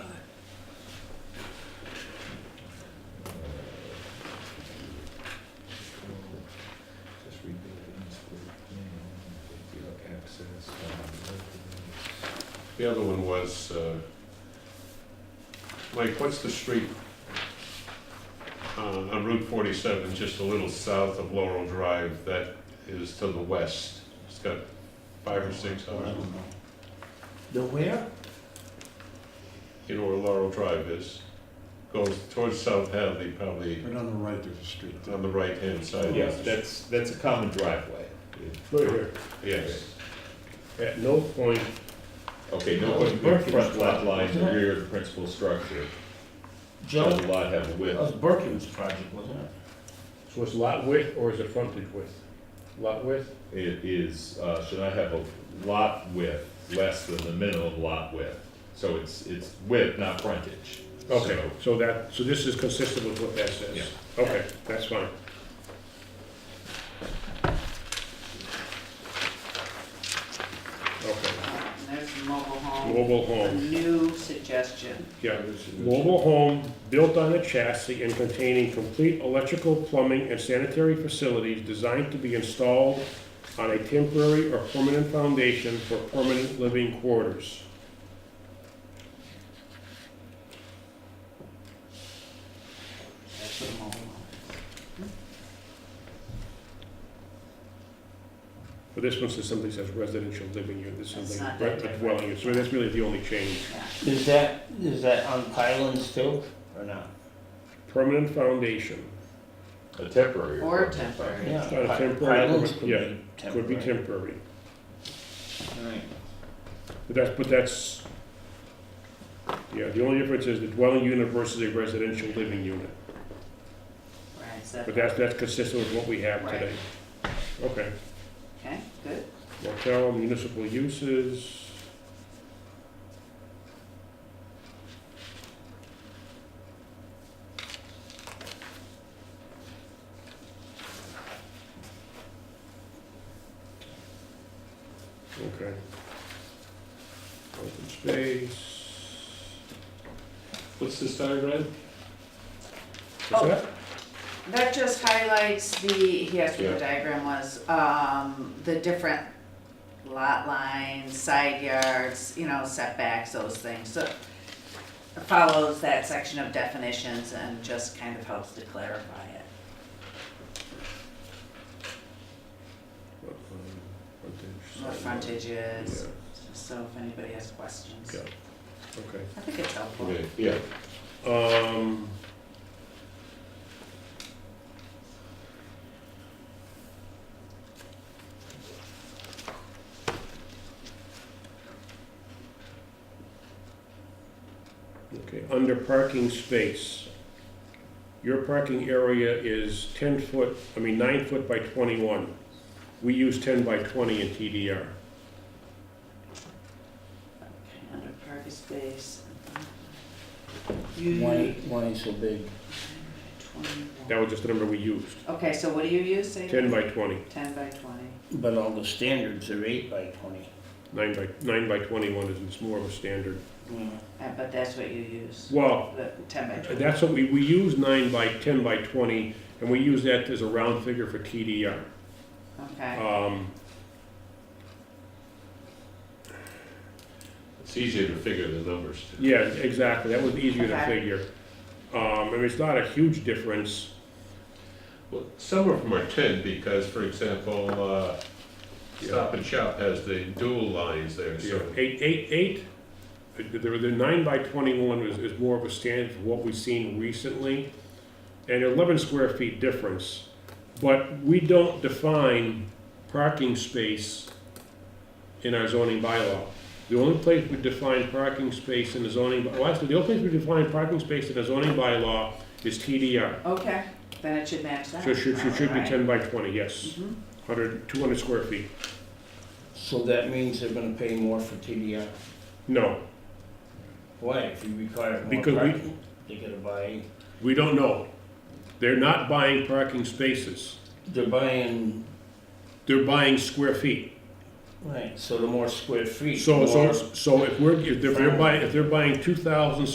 The other one was, uh, like, what's the street uh, on Route 47, just a little south of Laurel Drive, that is to the west? It's got five or six I houses. don't know. The where? You know where Laurel Drive is? Goes towards South Hadley, probably Right on the right, there's a street. on the right-hand side. Yes, that's, that's a common driveway. Look here, Yes. at no point, Okay, no, the front lot line, the rear of the principal structure, Joe, does that the lot have a width? was Berkins project, wasn't it? so it's lot width or is it frontage width? Lot width? It is, uh, should I have a lot width less than the minimum lot width? So it's, it's width, not frontage. Okay, So- so that, so this is consistent with what that Yeah. says. Okay, that's fine. Okay, There's the mobile home, mobile a home, new suggestion. yeah, mobile home built on a chassis and containing complete electrical, plumbing, and sanitary facilities designed to be installed on a temporary or permanent foundation for permanent living quarters. That's what a mobile home But this one says simply says residential living unit, this That's is like not that re- a different. dwelling, unit. so that's really the only change. is, yeah. Is that, is that on pylons too, or not? Permanent foundation, A temporary. Or temporary. Yeah, It's not a pi- temporary, Pylons but- could yeah, be could be temporary. temporary. Alright. But that's, but that's, yeah, the only difference is the dwelling unit versus a residential living unit. Right, so, But that's, that's consistent with what we have Right. today. Okay, okay, good. motel, municipal uses. Okay. Open space. What's this diagram? What's Oh. that? That just highlights the, he asked what Yeah. the diagram was, um, the different lot lines, side yards, you know, setbacks, those things, so it follows that section of definitions and just kind of helps to clarify it. Lot line, frontage, What side frontage is, yard. so if anybody has questions. Yeah, Okay. I think it's helpful. Okay, yeah. Um. Okay, under parking space, your parking area is ten foot, I mean, nine foot by twenty-one. We use ten by twenty in TDR. Okay, Under parking space. One, You- eight- one ain't so big. That 21. was just the number we used, Okay, so what do you use, say? ten by twenty. Ten by twenty. But all the standards are eight by twenty. Nine by, nine by twenty-one is, it's more of a standard. Uh, But that's what you use, Well, uh, the ten by twenty. that's what we, we use nine by ten by twenty, and we use that as a round figure for TDR. Okay, Um, It's easier to figure the numbers. too. yeah, exactly, that was easier to Okay. figure. Um, I mean, it's not a huge difference, Well, some of them are ten, because, for example, uh, Stop and Shop has the dual lines there, you know, so. eight, eight, eight. The, the, the nine by twenty-one is, is more of a standard for what we've seen recently, and eleven square feet difference. But we don't define parking space in our zoning bylaw. The only place we define parking space in the zoning, well, actually, the only place we define parking space in the zoning bylaw is TDR. okay, then it should match that. So it should, should, should be Alright. ten by twenty, yes, Mhm. hundred, two hundred square feet. So that means they're gonna pay more for TDR. No, Why? If you require more Because we- parking, they gotta buy, we don't know. They're not buying parking spaces, they're buying, they're buying square feet. right, so the more square feet, So, more. so, so if we're, if they're buying, if they're buying two thousand